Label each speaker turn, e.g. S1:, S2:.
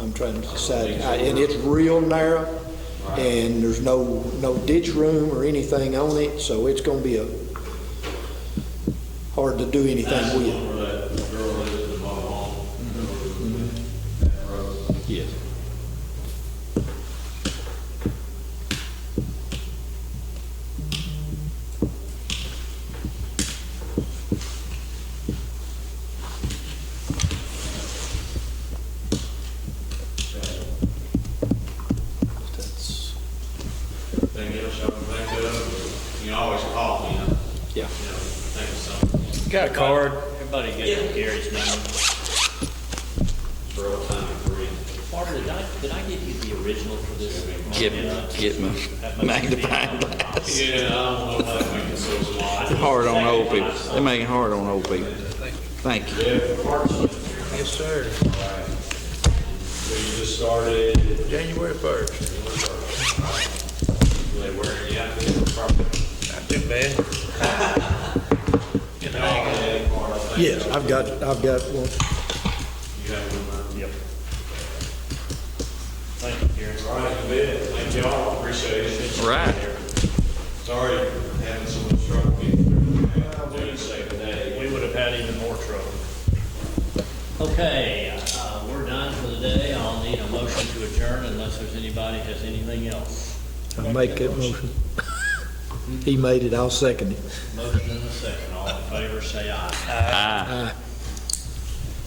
S1: I'm trying to decide. I- And it's real narrow, and there's no, no ditch room or anything on it, so it's gonna be a, hard to do anything with.
S2: Where that girl lives in the mobile home. That road.
S1: Yes. That's,
S2: Thing else I would think of, you always call me, you know,
S1: yeah.
S2: you know, think of something.
S3: Got a card? Everybody get Gary's name.
S2: For all time free.
S3: Barbara, did I, did I give you the original for this?
S4: Get,
S3: Yeah.
S4: get my magnifying glass.
S2: Yeah, I don't know if I can so small.
S4: Hard on old people. They make it hard on old people. Thank you.
S5: Yes, sir.
S2: So you just started,
S5: January first.
S2: like, where, yeah, I think it's probably.
S5: Not too bad.
S2: You know, that part, I think.
S1: Yes, I've got, I've got one.
S2: You have one,
S3: Yep. Thank you, Gary.
S2: uh, all right, good, thank y'all, appreciate it.
S4: Right.
S2: Sorry, having so much trouble getting through. Doing safe today.
S3: We would have had even more trouble. Okay, uh, we're done for the day. I'll need a motion to adjourn unless there's anybody has anything else.
S1: I make that motion. He made it, I'll second it.
S3: Motion in a second. All in favor, say aye.
S4: Aye.
S1: Aye.